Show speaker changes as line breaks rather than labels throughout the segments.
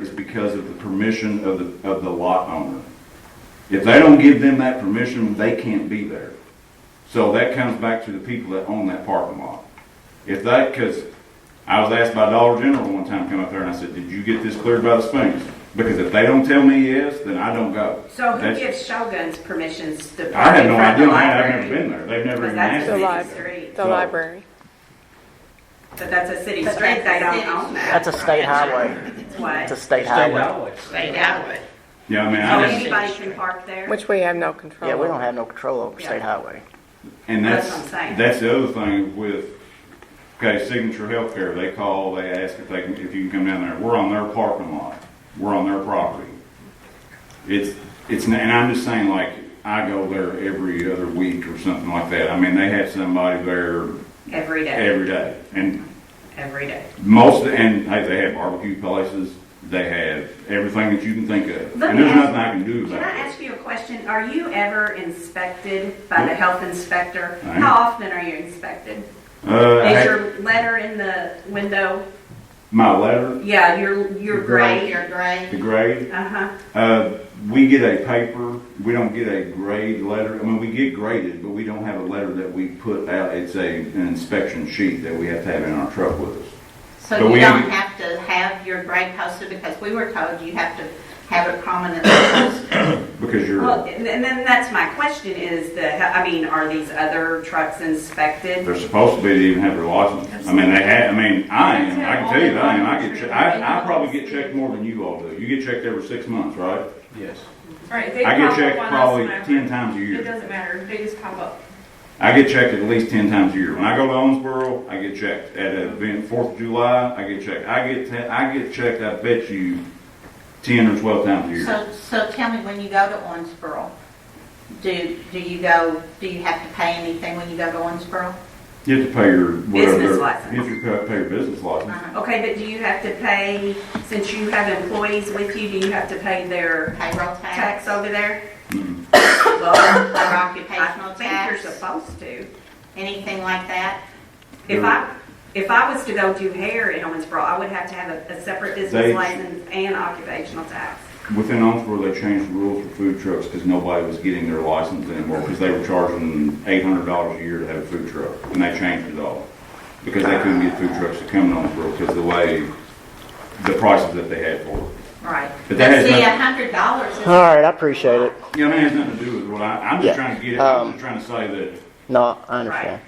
is because of the permission of the, of the lot owner. If they don't give them that permission, they can't be there. So that comes back to the people that own that parking lot. If that, because I was asked by Dollar General one time, to come up there and I said, did you get this cleared by the Sphinx? Because if they don't tell me yes, then I don't go.
So who
That's-
gives Shogun's permissions to
I
park
have
in
no
front
idea,
of the
man, I've never
library?
been there, they've never
Because
even
that's
asked
a
The
me.
city
lib-
street.
The
So-
library.
But that's a city
But
street, they
that's a
don't
city
own that.
That's a state highway.
That's What?
It's a
So
state highway.
They know it.
Yeah, I mean, I just,
Oh, anybody can park there?
Which we have no control.
Yeah, we
over.
don't have no control over
Yeah.
state highway.
and
That's
that's,
what I'm saying.
that's the other thing with, okay, Signature Healthcare, they call, they ask if they, can if you can come down there, we're on their parking lot, we're on their property. It's, it's, n- and I'm just saying, like, I go there every other week or something like that, I mean, they have somebody there
Every day,
every day, and
every day.
Most, and hey, they have barbecue places, they have everything that you can think of.
Let
And
me
there's
ask-
nothing I can do
Can I
about it.
ask you a question? Are you ever inspected by the health inspector?
I am.
How often are you inspected?
Uh, I
Is
had-
your letter in the window?
my letter,
Yeah, your, your
Gray,
grade.
you're gray.
the grade,
Uh-huh.
uh, we get a paper, we don't get a grade letter, I mean, we get graded, but we don't have a letter that we put out. It's a, an inspection sheet that we have to have in our truck with us.
So
But
you
we-
don't have to have your grade posted because we were told you have to have it prominently posted.
Because
Well,
you're,
and and then that's my question is the, I mean, are these other trucks inspected?
they're supposed to be to even have their license. I mean, they had, I mean, I am, I can tell you that I am, I get, che- I, I probably get checked more than you all do. You get checked every six months, right?
Yes.
Right, they
I get
pop
checked
up on us
probably
whenever.
ten times a
It
year.
doesn't matter, they just pop up.
I get checked at least ten times a year. When I go to Owensboro, I get checked. At an event Fourth of July, I get checked. I get te- I get checked. I bet you ten or twelve times a year.
So, so tell me, when you go to Owensboro, do, do you go, do you have to pay anything when you go to Owensboro?
You have to pay your whatever.
Business
their-
license.
You have to pay- pay your business license.
Uh-huh.
Okay, but do you have to pay, since you have employees with you, do you have to pay their
Payroll tax?
tax over there?
Mm.
Well,
Or
I
occupational
think you're
tax?
supposed to.
Anything like that?
If I, if I was to go do hair in Owensboro, I would have to have a, a separate
They-
business license and occupational tax.
Within Owensboro, they changed the rules for food trucks because nobody was getting their license anymore because they were charging eight hundred dollars a year to have a food truck, and they changed it all because they couldn't get food trucks to come to Owensboro because the way the prices that they had for it.
Right.
But that has
See,
nothing,
a hundred dollars is.
All right, I appreciate it.
you know, that has nothing to do with what I, I'm just
Yeah,
trying to get, it- I'm
um,
just trying to say that
No, I understand.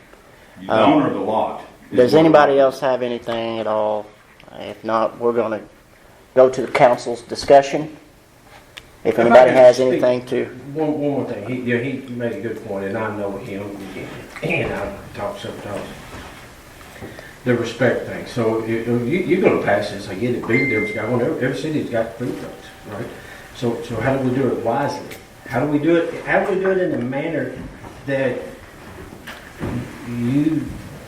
the owner of the lot. is
um, Does
what-
anybody else have anything at all? If not, we're gonna go to the council's discussion. If
If I
anybody
could
has
speak.
anything to,
One, one more thing, he, yeah, he made a good point, and I know him, and I've talked sometimes. The respect thing, so you, you- you're gonna pass this, I get it, big deal's got one, every, every city's got food trucks, right? So, so how do we do it wisely? How do we do it, how do we do it in a manner that you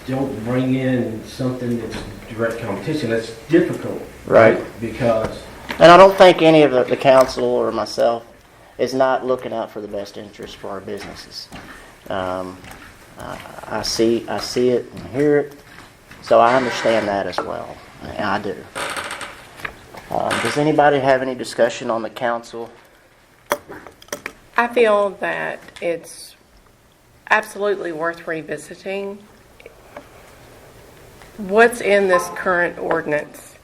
don't bring in something that's direct competition, that's difficult?
Right.
Because
and I don't think any of the, the council or myself is not looking out for the best interest for our businesses. Um, I, I see, I see it and hear it, so I understand that as well. I I do. Um, does anybody have any discussion on the council?
I feel that it's absolutely worth revisiting. What's in this current ordinance,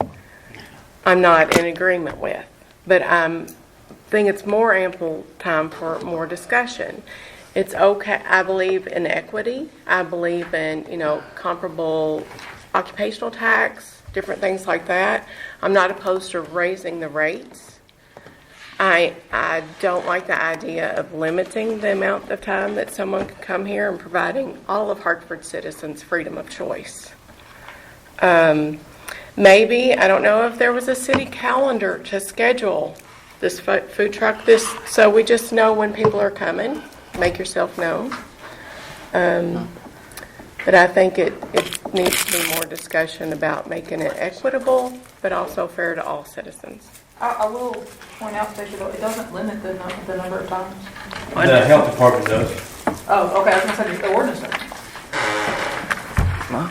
I'm not in agreement with, but I'm, think it's more ample time for more discussion. It's okay, I believe in equity, I believe in, you know, comparable occupational tax, different things like that. I'm not opposed to raising the rates. I, I don't like the idea of limiting the amount of time that someone can come here and providing all of Hartford citizens freedom of choice. Um, maybe, I don't know if there was a city calendar to schedule this fu- food truck, this, so we just know when people are coming, make yourself known. Um, But I think it, it needs to be more discussion about making it equitable, but also fair to all citizens.
I, I will point out that you don't- it doesn't limit the, nu- the number of times.
the health department does.
Oh, okay, I was gonna say, the ordinance does.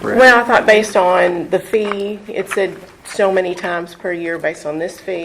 Well, I thought based on the fee, it said so many times per year based on this fee,